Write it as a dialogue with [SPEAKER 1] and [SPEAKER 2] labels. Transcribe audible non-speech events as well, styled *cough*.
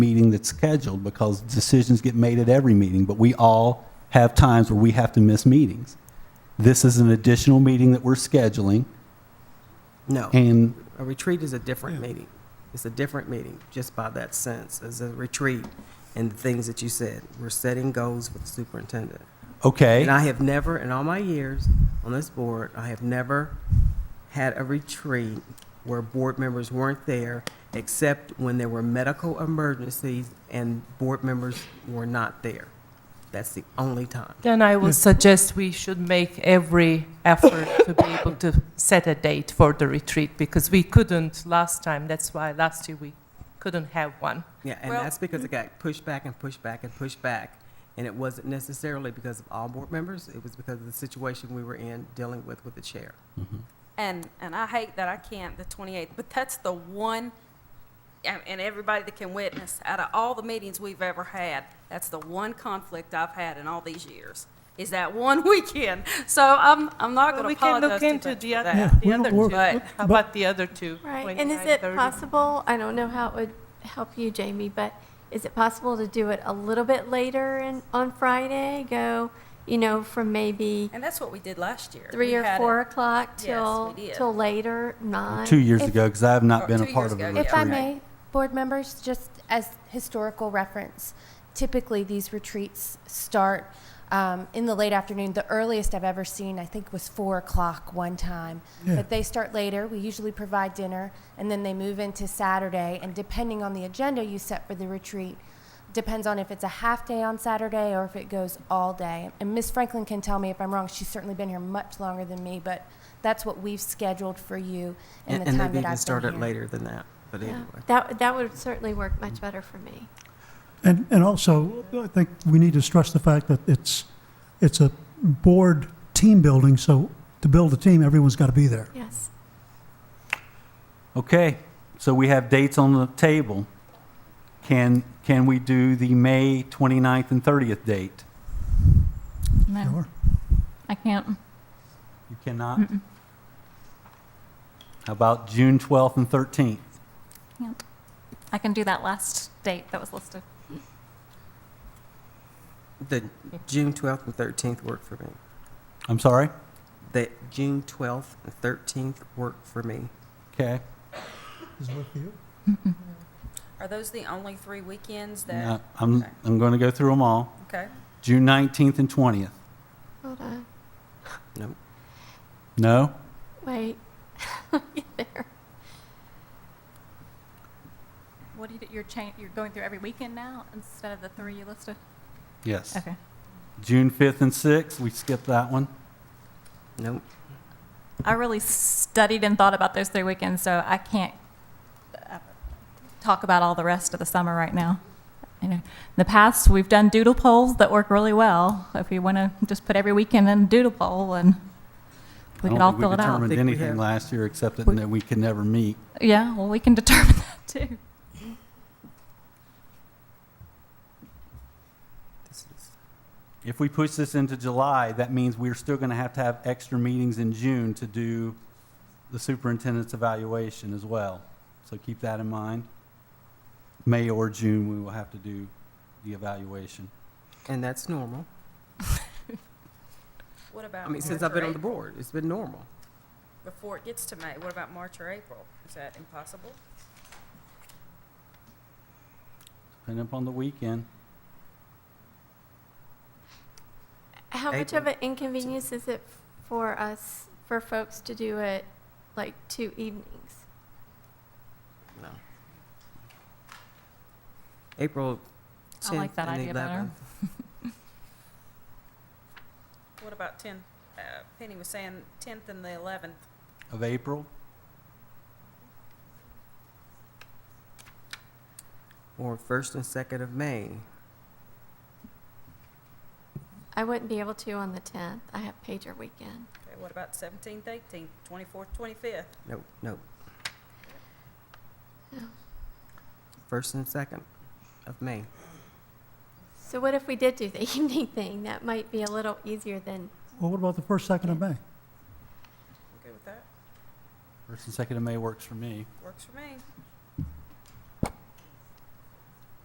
[SPEAKER 1] meeting that's scheduled because decisions get made at every meeting, but we all have times where we have to miss meetings. This is an additional meeting that we're scheduling,
[SPEAKER 2] No,
[SPEAKER 1] and
[SPEAKER 2] a retreat is a different meeting. It's a different meeting, just by that sense, as a retreat and the things that you said. We're setting goals for the superintendent.
[SPEAKER 1] okay.
[SPEAKER 2] And I have never, in all my years on this board, I have never had a retreat where board members weren't there, except when there were medical emergencies and board members were not there. That's the only time.
[SPEAKER 3] Then I would suggest we should make every effort to be able to set a date for the retreat because we couldn't last time. That's why last year we couldn't have one.
[SPEAKER 2] Yeah, and
[SPEAKER 4] Well-
[SPEAKER 2] that's because it got pushed back and pushed back and pushed back. And it wasn't necessarily because of all board members, it was because of the situation we were in dealing with with the chair.
[SPEAKER 4] And, and I hate that I can't the 28th, but that's the one, and and everybody that can witness, out of all the meetings we've ever had, that's the one conflict I've had in all these years, is that one *laughs* weekend. So I'm, I'm not
[SPEAKER 3] But
[SPEAKER 4] going to
[SPEAKER 3] we can look
[SPEAKER 4] apologize too much
[SPEAKER 3] into
[SPEAKER 4] for
[SPEAKER 3] the other,
[SPEAKER 4] that.
[SPEAKER 3] the other two.
[SPEAKER 4] But-
[SPEAKER 3] How about the other two?
[SPEAKER 5] Right, and is
[SPEAKER 3] 29,
[SPEAKER 5] it
[SPEAKER 3] 30?
[SPEAKER 5] possible, I don't know how it would help you, Jamie, but is it possible to do it a little bit later in, on Friday? Go, you know, from maybe
[SPEAKER 4] And that's what we did last year.
[SPEAKER 5] three
[SPEAKER 4] We
[SPEAKER 5] or
[SPEAKER 4] had it-
[SPEAKER 5] four o'clock
[SPEAKER 4] Yes,
[SPEAKER 5] till,
[SPEAKER 4] we did.
[SPEAKER 5] till later, nine?
[SPEAKER 1] Two years
[SPEAKER 6] If-
[SPEAKER 1] ago, because I have not
[SPEAKER 4] Or
[SPEAKER 1] been a
[SPEAKER 4] two
[SPEAKER 1] part
[SPEAKER 4] years
[SPEAKER 1] of a
[SPEAKER 4] ago, yeah.
[SPEAKER 1] retreat.
[SPEAKER 6] If I may, board members, just as historical reference, typically these retreats start um, in the late afternoon. The earliest I've ever seen, I think, was four o'clock one time. But they start later. We usually provide dinner, and then they move into Saturday. And depending on the agenda you set for the retreat, depends on if it's a half day on Saturday or if it goes all day. And Miss Franklin can tell me if I'm wrong. She's certainly been here much longer than me, but that's what we've scheduled for you in
[SPEAKER 2] And
[SPEAKER 6] the
[SPEAKER 2] and they've
[SPEAKER 6] time that I've been
[SPEAKER 2] even started
[SPEAKER 6] here.
[SPEAKER 2] later than that, but
[SPEAKER 5] Yeah,
[SPEAKER 2] anyway.
[SPEAKER 5] That, that would certainly work much better for me.
[SPEAKER 7] And, and also, I think we need to stress the fact that it's, it's a board team building, so to build a team, everyone's got to be there.
[SPEAKER 5] Yes.
[SPEAKER 1] Okay, so we have dates on the table. Can, can we do the May 29th and 30th date?
[SPEAKER 8] No,
[SPEAKER 7] Sure.
[SPEAKER 8] I can't.
[SPEAKER 1] You cannot? How about June 12th and 13th?
[SPEAKER 8] Can't. I can do that last date that was listed.
[SPEAKER 2] The June 12th and 13th worked for me.
[SPEAKER 1] I'm sorry?
[SPEAKER 2] The June 12th and 13th worked for me.
[SPEAKER 1] Okay.
[SPEAKER 7] Does it work for you?
[SPEAKER 4] Are those the only three weekends
[SPEAKER 1] No,
[SPEAKER 4] that,
[SPEAKER 1] I'm,
[SPEAKER 4] okay.
[SPEAKER 1] I'm going to go through them all.
[SPEAKER 4] okay?
[SPEAKER 1] June 19th and 20th.
[SPEAKER 5] Hold on,
[SPEAKER 2] No,
[SPEAKER 1] No?
[SPEAKER 5] wait. Get there.
[SPEAKER 8] What do you, you're changing, you're going through every weekend now instead of the three you listed?
[SPEAKER 1] Yes.
[SPEAKER 8] Okay.
[SPEAKER 1] June 5th and 6th, we skipped that one.
[SPEAKER 2] no,
[SPEAKER 8] I really studied and thought about those three weekends, so I can't uh, talk about all the rest of the summer right now. You know, in the past, we've done doodle polls that work really well. If you want to just put every weekend in a doodle poll and we could all fill it
[SPEAKER 1] I
[SPEAKER 8] out.
[SPEAKER 1] don't think we
[SPEAKER 2] Think we
[SPEAKER 1] determined anything
[SPEAKER 2] have-
[SPEAKER 1] last year except that
[SPEAKER 8] We-
[SPEAKER 1] no- we could never meet.
[SPEAKER 8] Yeah, well, we can determine that too.
[SPEAKER 2] this is-
[SPEAKER 1] If we push this into July, that means we're still going to have to have extra meetings in June to do the superintendent's evaluation as well. So keep that in mind. May or June, we will have to do the evaluation.
[SPEAKER 2] and that's normal.
[SPEAKER 4] What
[SPEAKER 2] I
[SPEAKER 4] about March
[SPEAKER 2] mean, since I've been
[SPEAKER 4] or
[SPEAKER 2] on the
[SPEAKER 4] April?
[SPEAKER 2] board, it's been normal.
[SPEAKER 4] Before it gets to May, what about March or April? Is that impossible?
[SPEAKER 1] Depending upon the weekend.
[SPEAKER 5] How much
[SPEAKER 2] April.
[SPEAKER 5] of an inconvenience is it for us, for folks to do it like two evenings?
[SPEAKER 2] No. April
[SPEAKER 8] I like
[SPEAKER 2] 10th
[SPEAKER 8] that
[SPEAKER 2] and
[SPEAKER 8] idea better.
[SPEAKER 2] 11th.
[SPEAKER 4] What about 10? Uh, Penny was saying 10th and the 11th.
[SPEAKER 1] of April.
[SPEAKER 2] Or first and second of May.
[SPEAKER 5] I wouldn't be able to on the 10th. I have pager weekend.
[SPEAKER 4] Okay, what about 17th, 18th, 24th, 25th?
[SPEAKER 2] No, no.
[SPEAKER 5] No.
[SPEAKER 2] First and second of May.
[SPEAKER 5] So what if we did do the *laughs* evening thing? That might be a little easier than,
[SPEAKER 7] Well, what about the first, second of May?
[SPEAKER 4] Okay with that?
[SPEAKER 1] First and second of May works for me.
[SPEAKER 4] Works for me.